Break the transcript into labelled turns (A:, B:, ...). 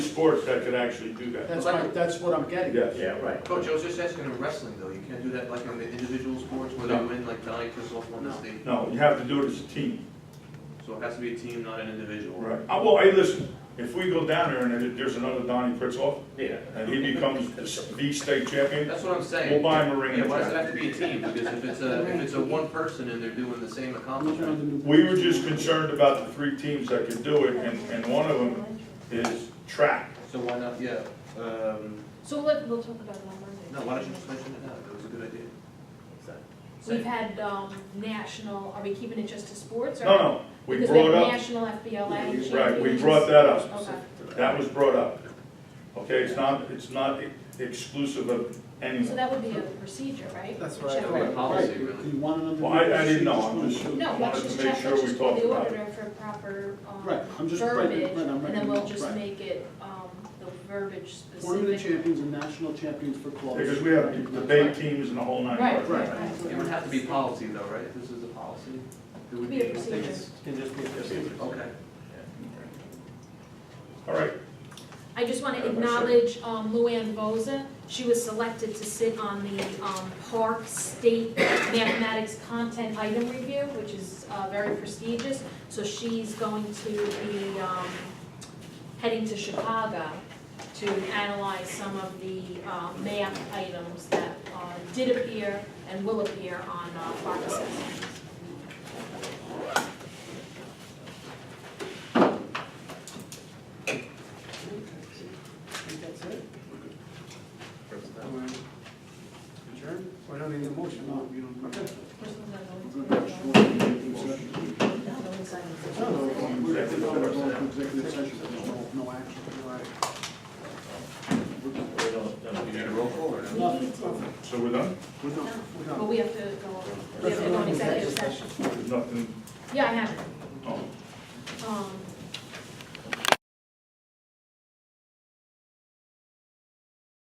A: sports that could actually do that.
B: That's my, that's what I'm getting at.
A: Yes.
C: right.
D: Coach, I was just asking in wrestling though, you can't do that like in the individual sports where they
A: No.
D: win like nine to softball in the
B: No.
D: state?
A: No, you have to do it as a team.
D: So it has to be a team, not an individual.
A: Right. Uh, Well, hey, listen, if we go down there and there- there's another Donnie Pritzoff,
C: Yeah.
A: and he becomes the state champion,
D: That's what I'm saying.
A: we'll buy him a ring
D: Yeah,
A: and
D: why does it
A: tag.
D: have to be a team? Because if it's a, if it's a one person and they're doing the same
B: I'm looking at the
D: accomplishment.
B: new-
A: We were just concerned about the three teams that could do it, and, and one of them is track.
D: So why not, yeah, um,
E: So let, we'll talk about it on Monday.
D: no, why don't you just mention it now? That was a good idea.
E: We've had, um, national, are we keeping it just to sports or?
A: No, no, we
E: Because we have
A: brought up,
E: national FBLA champions.
A: right, we brought that up.
E: Okay,
A: That was brought up. Okay, it's not, it's not exclusive of
E: so
A: anyone.
E: that would be a procedure, right?
B: That's what I
E: Check.
D: Should be a
B: thought,
D: policy,
B: right.
D: really.
B: Do you want another?
A: Well, I- I didn't know. I'm
B: Just
A: just-
B: wanna-
E: No,
A: Wanted
E: let's
A: to
E: just
A: make
E: check,
A: sure
E: let's
A: we
E: just call
A: talked
E: the
A: about it.
E: auditor for proper, um,
B: Right, I'm just- right,
E: verbiage,
B: right, I'm
E: and then we'll
B: recommending-
E: just
B: right.
E: make it, um, the verbiage specific.
B: Tournament champions and national champions for clubs.
A: Because we have debate teams and the whole nine
E: Right,
A: yards.
B: Right.
E: right, right.
D: It would have to be policy though, right? This is a policy? It would
E: Be a
D: be-
E: procedure.
C: Can just be a procedure.
D: Okay.
A: All right,
E: I just want
A: Yeah,
E: to
A: that's right.
E: acknowledge um, Luann Boza. She was selected to sit on the um, Park State Mathematics Content Item Review, which is uh, very prestigious. So she's going to be um, heading to Chicago to analyze some of the um, math items that uh, did appear and will appear on uh, Park Assessment.
B: I think that's it. Adjourn?
C: We don't need a motion,
B: No,
C: no.
B: you don't. Okay. We're gonna have
E: All
B: short meeting, executive session. No, no, we're gonna go to executive session, there's no, no action.
C: We don't, no.
D: You need a roll call or no?
B: Nothing, nothing.
A: so we're done?
B: We're done, we're
E: But
B: done.
E: we have to go, we have to go on executive session.
A: There's nothing,
E: Yeah, I have it.
A: oh,
E: Um,